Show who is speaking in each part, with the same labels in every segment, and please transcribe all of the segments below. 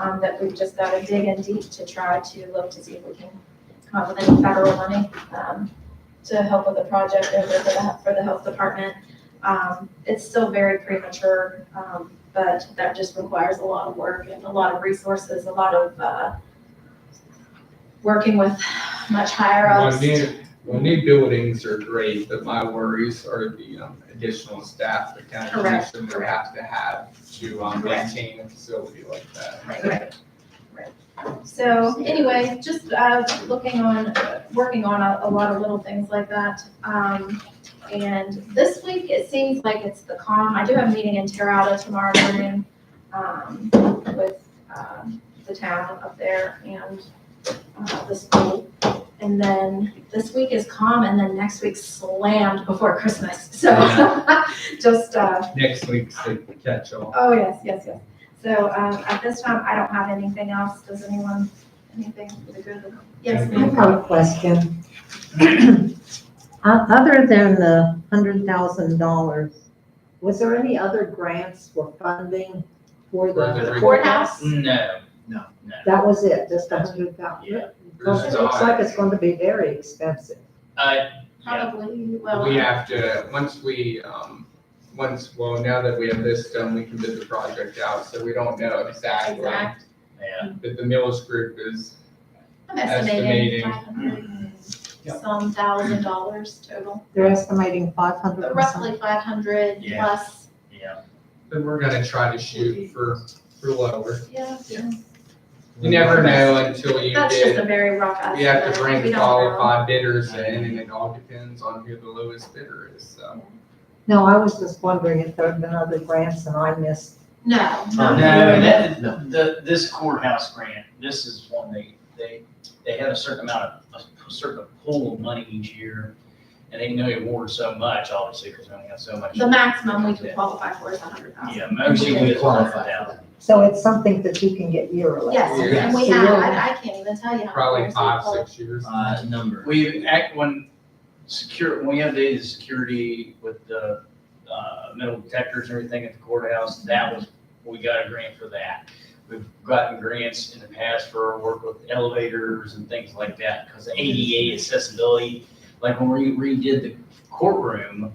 Speaker 1: um, that we've just got to dig in deep to try to look to see if we can come up with any federal money, um, to help with the project over for the, for the health department. Um, it's still very premature, um, but that just requires a lot of work and a lot of resources, a lot of, uh, working with much higher
Speaker 2: My
Speaker 1: ups.
Speaker 2: new, my new buildings are great, but my worries are the um, additional staff the county
Speaker 1: Correct,
Speaker 2: commission would
Speaker 1: correct.
Speaker 2: have to have to um,
Speaker 1: Correct.
Speaker 2: maintain a facility like that.
Speaker 1: Right, right, right. So anyway, just uh, looking on, uh, working on a, a lot of little things like that. Um, And this week, it seems like it's the calm. I do have a meeting in Terrata tomorrow morning um, with um, the town up there and uh, the school. And then this week is calm and then next week slammed before Christmas. So just, uh,
Speaker 2: Next week's the catch-all.
Speaker 1: Oh, yes, yes, yes. So, um, at this time, I don't have anything else. Does anyone, anything for the good of the? Yes,
Speaker 3: I
Speaker 1: ma'am.
Speaker 3: have a question. O- Other than the hundred thousand dollars, was there any other grants or funding for
Speaker 2: For
Speaker 3: the
Speaker 2: the
Speaker 3: courthouse?
Speaker 4: No,
Speaker 3: That was it, just a hundred thousand?
Speaker 4: yeah,
Speaker 3: Because
Speaker 2: There's
Speaker 3: it looks
Speaker 2: not-
Speaker 3: like it's going to be very expensive.
Speaker 4: uh, yeah,
Speaker 1: Probably, well. uh,
Speaker 2: We have to, once we, um, once, well, now that we have this done, we can bid the project out, so we don't know exactly.
Speaker 1: Exact.
Speaker 4: yeah,
Speaker 2: But the Mills Group is,
Speaker 1: I'm estimating
Speaker 2: Estimating.
Speaker 1: five hundred and some thousand dollars total,
Speaker 3: They're estimating five hundred
Speaker 1: but
Speaker 3: or something.
Speaker 1: roughly five hundred
Speaker 4: Yeah.
Speaker 1: plus.
Speaker 4: yeah.
Speaker 2: then we're gonna try to shoot for, for lower.
Speaker 1: Yeah.
Speaker 2: You never know until you
Speaker 1: That's just
Speaker 2: bid.
Speaker 1: a very rough estimate.
Speaker 2: You have to
Speaker 1: Uh, We
Speaker 2: bring
Speaker 1: don't know.
Speaker 2: qualified bidders in, and it all depends on who the lowest bidder is, so.
Speaker 3: No, I was just wondering if there had been other grants and I missed.
Speaker 1: No,
Speaker 4: No,
Speaker 1: no.
Speaker 4: that, the, this courthouse grant, this is one they, they, they have a certain amount of, a certain pool of money each year. And they can only award so much, obviously, because they only have so much.
Speaker 1: The maximum we could qualify for is a hundred thousand.
Speaker 4: Yeah, most
Speaker 1: We
Speaker 4: of it is
Speaker 5: qualify for
Speaker 4: qualified out.
Speaker 3: So it's something that you can get yearly.
Speaker 1: Yes, and we
Speaker 3: So
Speaker 1: have,
Speaker 3: you'll-
Speaker 1: I, I can't even tell you how. many
Speaker 2: Probably
Speaker 1: years we
Speaker 2: five,
Speaker 1: qualified.
Speaker 2: six years.
Speaker 5: Uh, number.
Speaker 4: We act when secure, when we updated the security with the, uh, metal detectors and everything at the courthouse, that was, we got a grant for that. We've gotten grants in the past for our work with elevators and things like that, because ADA accessibility, like when we redid the courtroom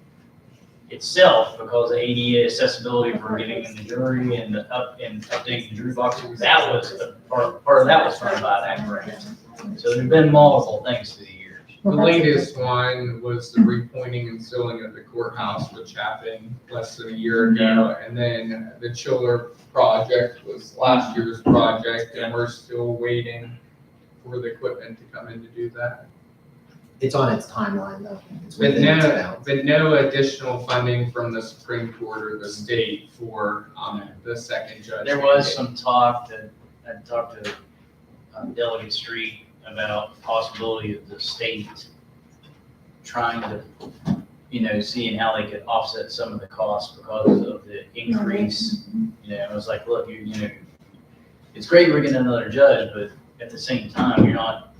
Speaker 4: itself, because of ADA accessibility for getting in the jury and the up, and updating the jury box, that was, the part, part of that was funded by that grant. So there've been multiple things through the years.
Speaker 2: The
Speaker 3: Well, that's-
Speaker 2: latest one was the repointing and sealing of the courthouse, which happened less than a year ago. And then the chiller project was last year's project, and we're still waiting for the equipment to come in to do that.
Speaker 5: It's on its timeline though. It's
Speaker 2: But
Speaker 5: within its
Speaker 2: no,
Speaker 5: bounds.
Speaker 2: but no additional funding from the Supreme Court or the state for, um, the second judge.
Speaker 4: There was some talk that, I talked to um, Delegate Street about possibility of the state trying to, you know, seeing how they could offset some of the costs because of the increase. You know, I was like, look, you, you know, it's great we're getting another judge, but at the same time, you're not,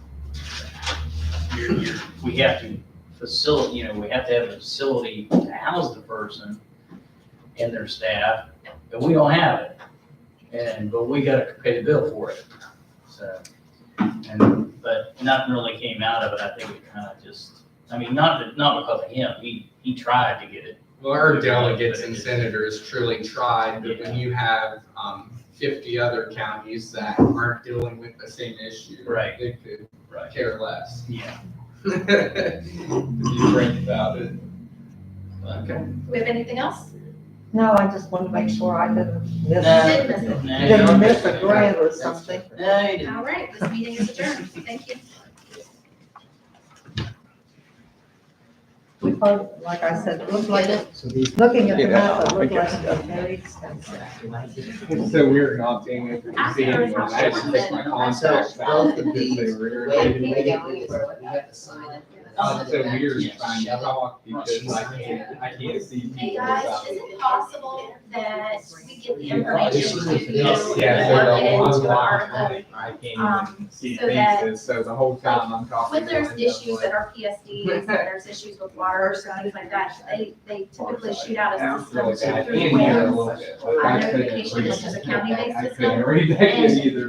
Speaker 4: you're, you're, we have to facilitate, you know, we have to have a facility to house the person and their staff, and we don't have it. And, but we gotta pay the bill for it, so. And, but nothing really came out of it, I think it kinda just, I mean, not, that- not because of him, he, he tried to get it.
Speaker 2: Well, our delegates and senators truly tried, but when you have, um, fifty other counties that aren't dealing with the same issue.
Speaker 4: Right.
Speaker 2: They could
Speaker 4: Right.
Speaker 2: care less.
Speaker 4: Yeah.
Speaker 2: If You think about it.
Speaker 4: Okay.
Speaker 1: Do we have anything else?
Speaker 3: No, I just wanted to make sure I didn't miss.
Speaker 2: Uh,
Speaker 1: No. did miss it.
Speaker 3: Didn't miss a grant or something.
Speaker 4: No, you didn't.
Speaker 1: All right, this meeting is adjourned. Thank you.
Speaker 3: We probably, like I said, it looked like, looking at the map, it looked like it was very expensive.
Speaker 2: It's so weird not being able to see anyone. I had to take my contacts
Speaker 5: So, both
Speaker 2: out
Speaker 5: of
Speaker 2: because
Speaker 5: these,
Speaker 2: they were
Speaker 5: we
Speaker 2: irritating.
Speaker 5: had to make it, we had to sign it.
Speaker 2: It's Uh, so weird trying to
Speaker 5: Yes.
Speaker 2: talk because I can't, I can't see people.
Speaker 1: Hey guys,
Speaker 2: without-
Speaker 1: is it possible that we get the
Speaker 5: Yeah, this
Speaker 1: information
Speaker 5: is-
Speaker 1: to you?
Speaker 5: yes,
Speaker 2: Yeah,
Speaker 1: and work it
Speaker 2: so the
Speaker 1: into
Speaker 2: one
Speaker 1: the article?
Speaker 2: line, I can't
Speaker 1: Um,
Speaker 2: even see
Speaker 1: so that-
Speaker 2: faces, so the whole time I'm talking.
Speaker 1: When there's
Speaker 2: I'm just
Speaker 1: issues
Speaker 2: like-
Speaker 1: that are PSDs, and there's issues with water, or things like that, they, they typically shoot out a
Speaker 2: That's really
Speaker 1: system
Speaker 2: bad.
Speaker 1: through
Speaker 2: And you know, a
Speaker 1: wins.
Speaker 2: little bit, but I couldn't
Speaker 1: Notification,
Speaker 2: read-
Speaker 1: which is a county-based
Speaker 2: I
Speaker 1: system,
Speaker 2: couldn't read that
Speaker 1: and-
Speaker 2: either.